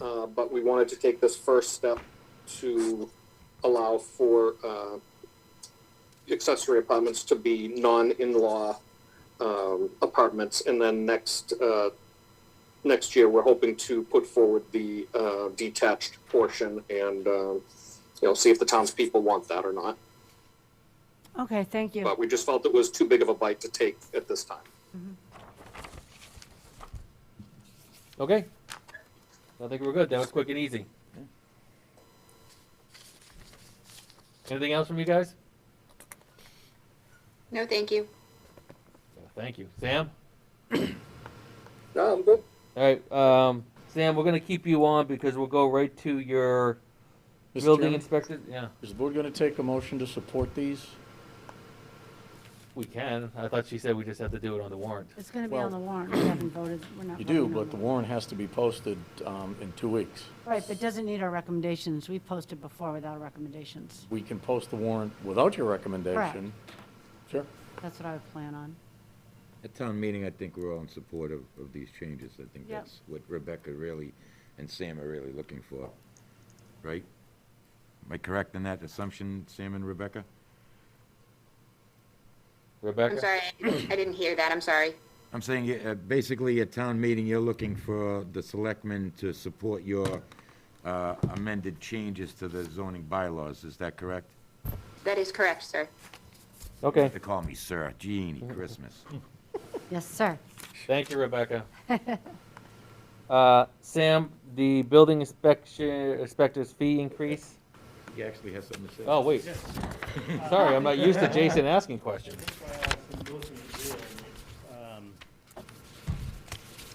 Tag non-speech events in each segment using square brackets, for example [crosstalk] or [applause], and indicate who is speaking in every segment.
Speaker 1: uh, but we wanted to take this first step to allow for uh, accessory apartments to be non-in-law um, apartments, and then next uh, next year we're hoping to put forward the uh, detached portion and uh, you know see if the townspeople want that or not.
Speaker 2: Okay, thank you.
Speaker 1: But we just felt it was too big of a bite to take at this time.
Speaker 3: Okay. I think we're good. That was quick and easy. Anything else from you guys?
Speaker 4: No, thank you.
Speaker 3: Yeah, Thank you. Sam?
Speaker 1: No, I'm good.
Speaker 3: All right. Um, Sam, we're going to keep you on because we'll go right to your
Speaker 5: Mr.
Speaker 3: building
Speaker 5: Chairman,
Speaker 3: inspector. Yeah,
Speaker 5: Is the board going to take a motion to support these?
Speaker 3: we can. I thought she said we just have to do it on the warrant.
Speaker 2: It's gonna be
Speaker 5: Well-
Speaker 2: on the warrant, we haven't voted, we're not.
Speaker 5: You do,
Speaker 2: voting on
Speaker 5: but the warrant has to be posted um, in two weeks.
Speaker 2: Right, but it doesn't need our recommendations, we posted before without recommendations,
Speaker 5: We can post the warrant without your recommendation. Sure.
Speaker 2: that's what I would plan on.
Speaker 6: At town meeting, I think we're all in support of, of these changes. I think
Speaker 2: Yep.
Speaker 6: that's what Rebecca really and Sam are really looking for, right? Am I correct in that assumption, Sam and Rebecca?
Speaker 3: Rebecca?
Speaker 4: I'm sorry, I didn't hear that. I'm sorry.
Speaker 6: I'm saying, uh, basically, at town meeting, you're looking for the selectmen to support your uh, amended changes to the zoning bylaws, is that correct?
Speaker 4: That is correct, sir.
Speaker 3: Okay.
Speaker 6: They call me sir, Genie Christmas.
Speaker 2: Yes, sir.
Speaker 3: Thank you, Rebecca. [laughs] uh, Sam, the building inspection inspector's fee increase.
Speaker 6: He actually has something to say.
Speaker 3: Oh, wait. Sorry, I'm not used to Jason asking questions.
Speaker 7: Um,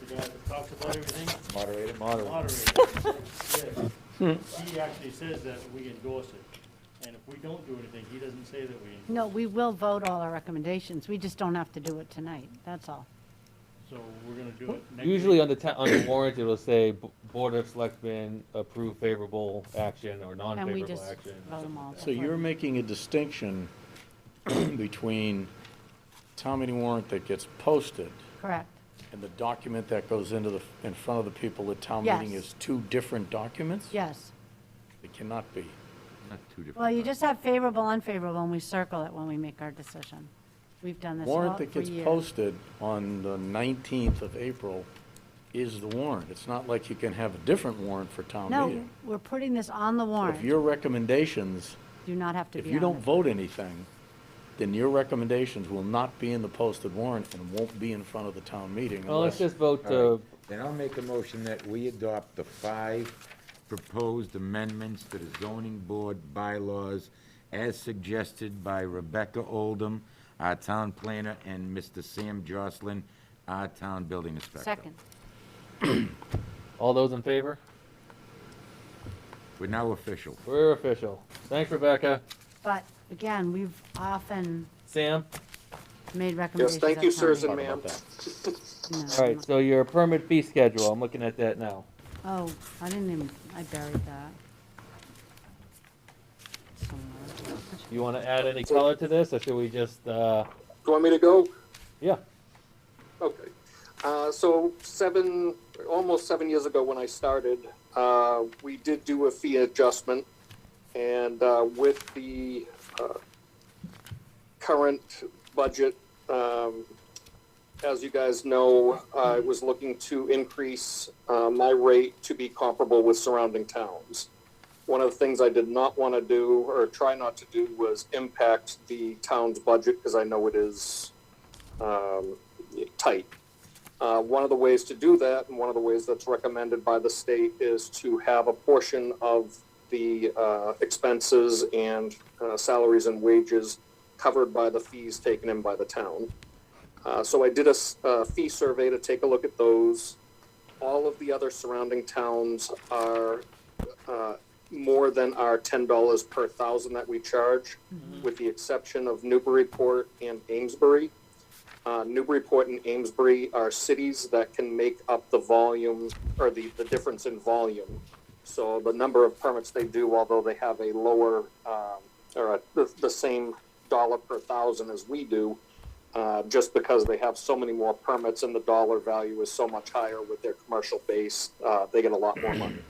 Speaker 7: You guys have talked about everything,
Speaker 6: Moderator?
Speaker 3: Moderator.
Speaker 7: moderator. yes. He actually says that we endorse it, and if we don't do anything, he doesn't say that we. endorse
Speaker 2: No, we will vote all our recommendations, we just don't have to do it tonight, that's all.
Speaker 7: it. So we're gonna do it next week.
Speaker 3: Usually on the, ta- on the warrant, it'll say B- Board of Selectmen approve favorable action
Speaker 2: And
Speaker 3: or
Speaker 2: we
Speaker 3: non-favorable
Speaker 2: just
Speaker 3: action. or
Speaker 2: vote them
Speaker 3: something.
Speaker 2: all.
Speaker 5: So you're making a distinction [clears throat] between town meeting warrant that gets posted
Speaker 2: Correct,
Speaker 5: and the document that goes into the, in front of the people at town meeting
Speaker 2: Yes.
Speaker 5: is two different documents?
Speaker 2: yes.
Speaker 5: It cannot be.
Speaker 6: Not two different.
Speaker 2: Well, you
Speaker 6: times.
Speaker 2: just have favorable, unfavorable, and we circle it when we make our decision. We've done this all
Speaker 5: Warrant
Speaker 2: for
Speaker 5: that gets
Speaker 2: years.
Speaker 5: posted on the 19th of April is the warrant. It's not like you can have a different warrant for town
Speaker 2: No,
Speaker 5: meeting.
Speaker 2: we're putting this on the
Speaker 5: If
Speaker 2: warrant,
Speaker 5: your recommendations,
Speaker 2: do not have to
Speaker 5: if
Speaker 2: be
Speaker 5: you
Speaker 2: on
Speaker 5: don't
Speaker 2: it.
Speaker 5: vote anything, then your recommendations will not be in the posted warrant and won't be in front of the town meeting
Speaker 3: Well, let's
Speaker 5: unless,
Speaker 3: just vote
Speaker 6: All
Speaker 3: to,
Speaker 6: right. Then I'll make a motion that we adopt the five proposed amendments to the zoning board bylaws as suggested by Rebecca Oldham, our town planner, and Mr. Sam Jocelyn, our town building inspector.
Speaker 2: Second,
Speaker 3: all those in favor?
Speaker 6: We're now official.
Speaker 3: We're official. Thanks, Rebecca.
Speaker 2: but again, we've often
Speaker 3: Sam?
Speaker 2: made
Speaker 1: Yes,
Speaker 2: recommendations.
Speaker 1: thank you,
Speaker 2: at town
Speaker 1: sirs and
Speaker 2: meeting.
Speaker 1: ma'am.
Speaker 2: No,
Speaker 3: All right, so your permit fee schedule, I'm looking at that now.
Speaker 2: Oh, I didn't even, I buried that. Somewhere.
Speaker 3: You want to add any color to this, or should we just, uh,
Speaker 1: Do you want me to go?
Speaker 3: yeah?
Speaker 1: Okay. Uh, so seven, almost seven years ago when I started, uh, we did do a fee adjustment. And, uh, with the, uh, current budget, um, as you guys know, I was looking to increase, uh, my rate to be comparable with surrounding towns. One of the things I did not want to do or try not to do was impact the town's budget because I know it is, um, tight. Uh, one of the ways to do that, and one of the ways that's recommended by the state, is to have a portion of the uh, expenses and uh, salaries and wages covered by the fees taken in by the town. Uh, so I did a s- a fee survey to take a look at those. All of the other surrounding towns are uh, more than our ten dollars per thousand that we charge, with the exception of Newburyport and Amesbury. Uh, Newburyport and Amesbury are cities that can make up the volume or the, the difference in volume. So the number of permits they do, although they have a lower um, or a, the, the same dollar per thousand as we do, uh, just because they have so many more permits and the dollar value is so much higher with their commercial base, uh, they get a lot more money.